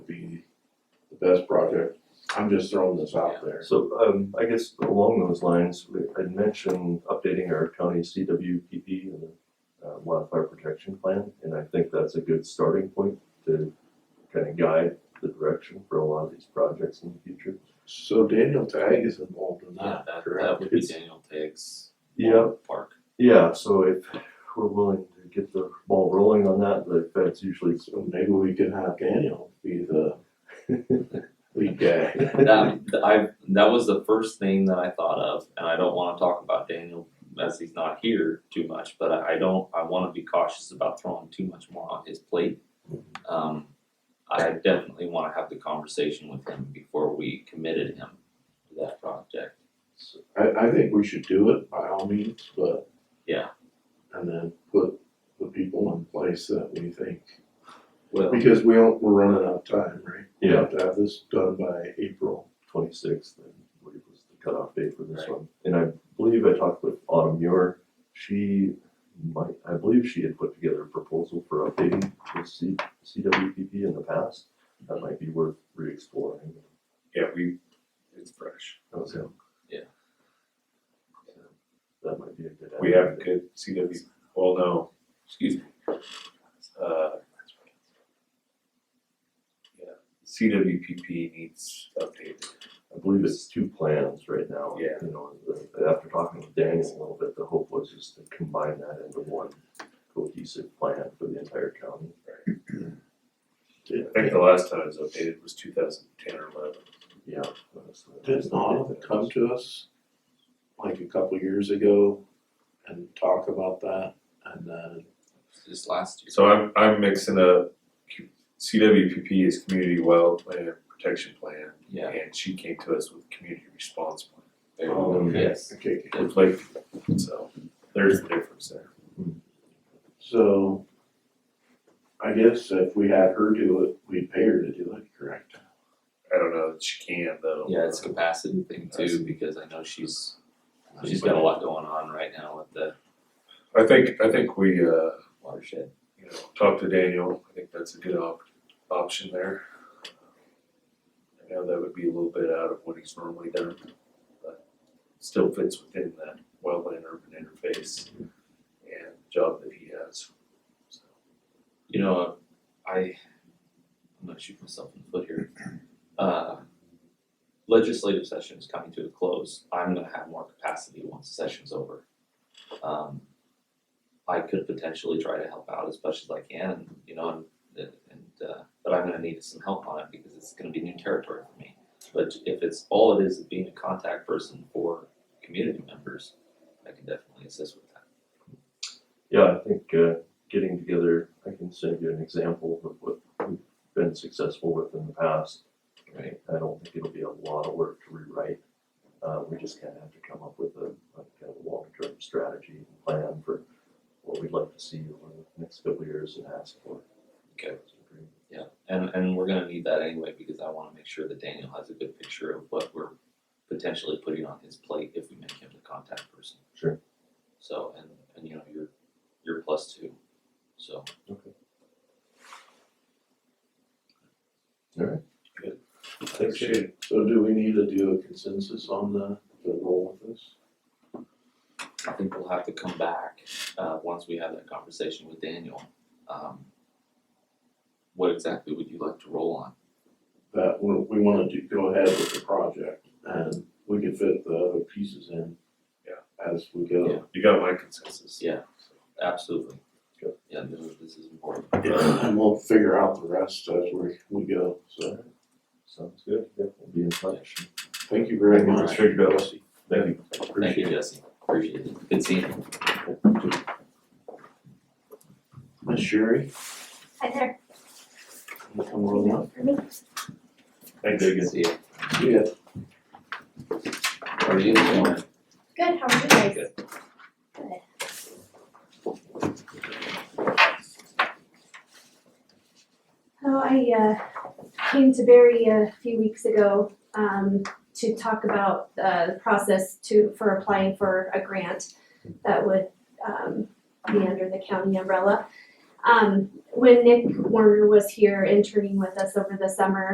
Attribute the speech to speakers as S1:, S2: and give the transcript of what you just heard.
S1: best project, I'm just throwing this out there.
S2: So, um, I guess along those lines, we I'd mentioned updating our county CWPP and the uh, wildfire protection plan, and I think that's a good starting point to kind of guide the direction for a lot of these projects in the future.
S1: So Daniel Tag is involved in
S3: Yeah,
S1: that,
S3: Ah, that, that
S1: correct?
S3: would be Daniel Tagg's
S2: Yeah,
S3: park.
S2: yeah, so if we're willing to get the ball rolling on that, the feds usually.
S1: So maybe we can have Daniel be the lead guy.
S3: That, th- I, that was the first thing that I thought of, and I don't wanna talk about Daniel as he's not here too much, but I, I don't, I wanna be cautious about throwing too much more on his plate. Um, I definitely wanna have the conversation with him before we committed him to that project.
S1: I, I think we should do it by all means, but.
S3: Yeah.
S1: And then put the people in place that we think,
S3: Well,
S1: because we don't, we're running out of time, right? We
S2: Yeah.
S1: have to have this done by April.
S2: twenty-sixth, I believe was the cutoff date for this
S3: Right.
S2: one. And I believe I talked with Autumn Muir, she might, I believe she had put together a proposal for updating the C, CWPP in the past. That might be worth re-exploring.
S4: Yeah, we, it's fresh.
S2: Okay.
S3: Yeah.
S2: That might be a good.
S4: We have a good CW, well, no,
S3: excuse me,
S4: uh. yeah, CWPP needs updated.
S2: I believe it's two plans right now.
S4: Yeah.
S2: You know, the- after talking with Daniel a little bit, the hope was just to combine that into one cohesive plan for the entire county.
S4: I think the last time it was updated was two thousand ten or eleven.
S2: Yeah.
S1: Did Autumn come to us like a couple years ago and talk about that? And then,
S3: just last year.
S4: So I'm, I'm mixing up, Q- CWPP is Community Wildland Protection Plan.
S3: Yeah.
S4: And she came to us with Community Response Plan. They
S1: Oh,
S4: were
S3: Yes,
S1: okay,
S4: conflict, so there's a difference there.
S1: so I guess if we had her do it, we'd pay her to do it, correct?
S4: I don't know that she can though.
S3: yeah, it's a capacity thing too, because I know she's, she's got a lot going on right now with the
S4: I think, I think we, uh,
S3: watershed.
S4: you know, talk to Daniel, I think that's a good op- option there. I know that would be a little bit out of what he's normally done, but still fits within that wetland urban interface and job that he has. So,
S3: you know, I, I'm gonna shoot myself in the foot here. Uh, legislative session is coming to a close. I'm gonna have more capacity once the session's over. Um, I could potentially try to help out as much as I can, you know, and, and, uh, but I'm gonna need some help on it because it's gonna be new territory for me. But if it's, all it is is being a contact person for community members, I can definitely assist with that.
S2: Yeah, I think uh, getting together, I can send you an example of what we've been successful with in the past.
S3: Right.
S2: I don't think it'll be a lot of work to rewrite. Uh, we just kind of have to come up with a, like, kind of a long-term strategy and plan for what we'd like to see over the next couple of years and ask for.
S3: Okay. Yeah, and and we're gonna need that anyway, because I wanna make sure that Daniel has a good picture of what we're potentially putting on his plate if we make him the contact person.
S2: Sure.
S3: So, and and you know, you're you're plus two, so.
S2: Thanks,
S4: Shane.
S1: So do we need to do a consensus on the, the role of this?
S3: I think we'll have to come back, uh, once we have that conversation with Daniel. Um, What exactly would you like to roll on?
S1: That we, we wanna do, go ahead with the project and we can fit the other pieces in.
S4: Yeah.
S1: As we go.
S4: You got my consensus.
S3: Yeah. Absolutely.
S2: Good.
S3: Yeah, this is, this is important.
S1: And we'll figure out the rest as we, we go, so
S2: Sounds good. Yeah, we'll be in touch.
S1: thank you very
S3: All
S1: much.
S3: right.
S2: Sure, Bill.
S1: Jesse.
S2: Thank you.
S3: Thank you, Jesse, appreciate it, good seeing you.
S1: Miss Sherry,
S5: Hi there.
S1: you come on up.
S5: For me?
S4: Thanks.
S3: Good to see you.
S1: Yeah,
S3: How are you doing?
S5: Good, how are you guys?
S3: Good.
S5: Good. Oh, I uh came to Barry a few weeks ago um to talk about uh the process to for applying for a grant that would um be under the county umbrella. Um when Nick Warner was here interning with us over the summer,